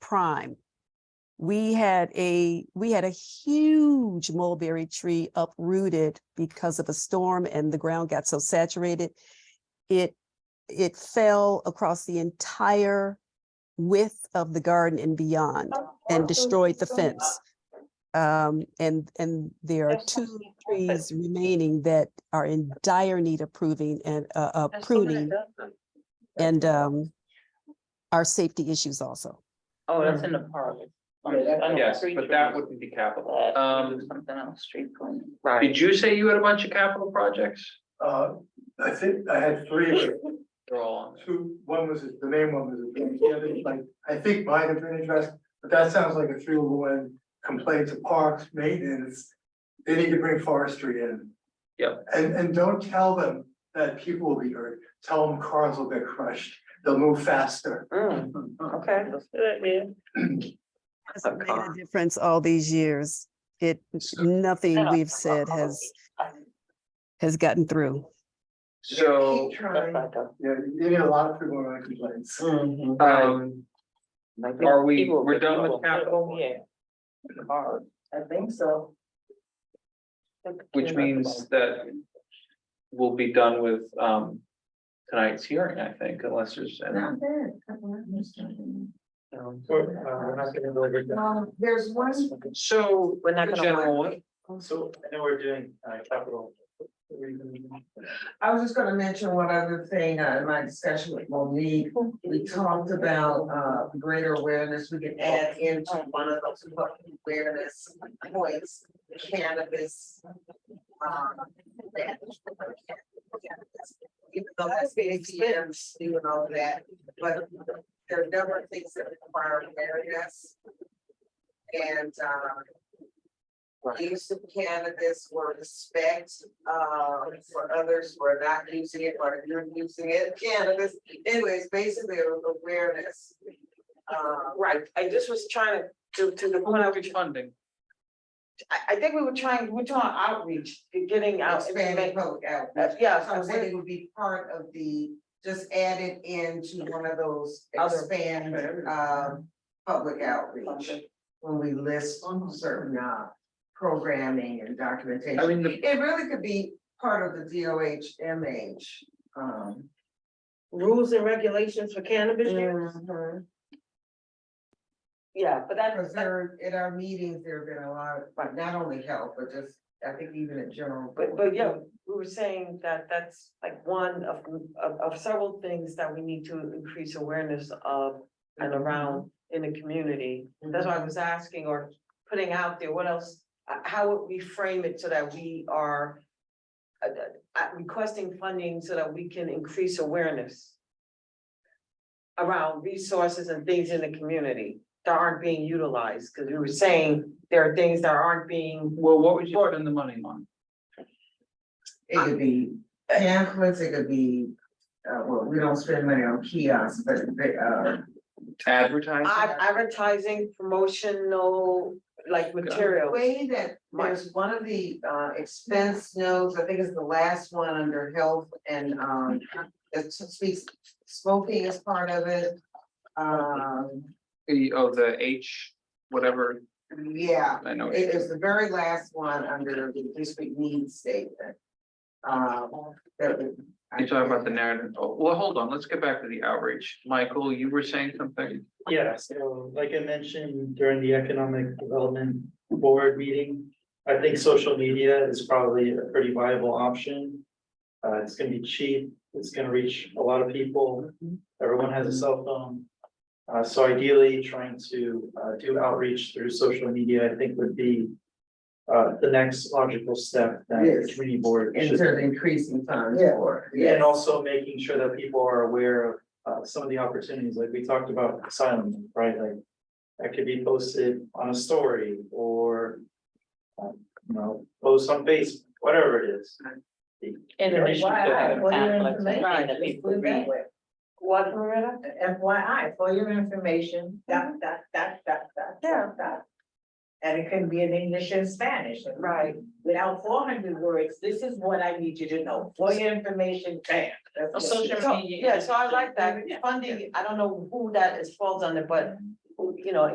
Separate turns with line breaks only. prime. We had a, we had a huge mulberry tree uprooted because of a storm and the ground got so saturated. It, it fell across the entire width of the garden and beyond and destroyed the fence. Um, and, and there are two trees remaining that are in dire need of proving and, uh, uh, pruning and, um, are safety issues also.
Oh, that's in the park.
Yes, but that wouldn't be capital. Um,
Something else, street cleaning.
did you say you had a bunch of capital projects?
Uh, I think I had three, of it.
They're all on there.
two, one was, the main one was, a drainage, the other, like, I think mine have been addressed, but that sounds like a three oh one complaint to parks, maintenance. They need to bring forestry in.
Yep.
And, and don't tell them that people will be hurt, tell them cars will get crushed, they'll move faster.
Mm, Okay.
has
a
made a
car.
difference all these years. It,
So-
nothing we've said has, has gotten through.
So,
Keep trying. Yeah, you need a lot of people on complaints.
um, Are we- we're done with capital?
Yeah. I think so.
which means that we'll be done with, um, tonight's hearing, I think, unless there's. any-
Um, there's one,
So,
We're not gonna-
general one,
So I know we're doing uh capital.
I was just gonna mention one other thing, uh, in my discussion with Monique, we talked about, uh, greater awareness, we can add into one of those public awareness points, cannabis. um, that- Even though that's been expensive, you know, that, but there are never things that require awareness. And, um, use of cannabis or respect uh for others who are not using it or you're using it, cannabis. Anyways, basically it was awareness. Uh,
Right, I just was trying to, to, to the point I was,
which funding,
I, I think we were trying, we're doing outreach, getting out.
expanding public outreach.
Uh, Yeah,
So I
so
said
we-
it would be part of the, just added into one of those
Other-
expand um public outreach. When we list certain uh programming and documentation.
I mean, the,
It really could be part of the DOH MH, um.
rules and regulations for cannabis use.
mhm.
Yeah, but that,
Because there, at our meetings, there have been a lot, of but not only health, but just, I think even in general.
but, but yeah, we were saying that that's like one of, of, of several things that we need to increase awareness of and around in the community. That's why I was asking or putting out there, what else, uh, how would we frame it so that we are uh, uh, requesting funding so that we can increase awareness around resources and things in the community that aren't being utilized, because we were saying there are things that aren't being,
well, what would you spend the money on?
It could be pamphlets, it could be, uh, well, we don't spend money on kiosks, but they, uh.
Advertising?
ad- advertising, promotional, like
The
materials.
way that there's one of the uh expense notes, I think it's the last one under health and um it speaks smoking is part of it. Um,
The, oh, the H, whatever,
yeah,
I know.
it is the very last one under the district needs statement. Um, that would.
You're talking about the narrative. Oh, Well, hold on, let's get back to the outreach. Michael, you were saying something?
Yeah, so like I mentioned during the Economic Development Board meeting, I think social media is probably a pretty viable option. Uh, it's gonna be cheap, it's gonna reach a lot of people, everyone has a cell phone. Uh, so ideally, trying to uh do outreach through social media, I think would be uh the next logical step that the
Yes.
community board
In
should
terms of increasing funds
Yeah.
for.
And also making sure that people are aware of uh some of the opportunities, like we talked about asylum, right, like. That could be posted on a story or. um, You know, post on Facebook, whatever it is.
And
Right.
FYI, for your
Right.
information, that people read.
What, Loretta?
FYI, for your information, dot, dot, dot, dot, dot,
Mm-hmm. Yeah.
dot, dot. And it can be in English and Spanish.
Right.
Without four hundred words, this is what I need you to know, for your information, bam. That's what-
So- Yeah, so I like that, funding, I don't know who that is falls under, but you know,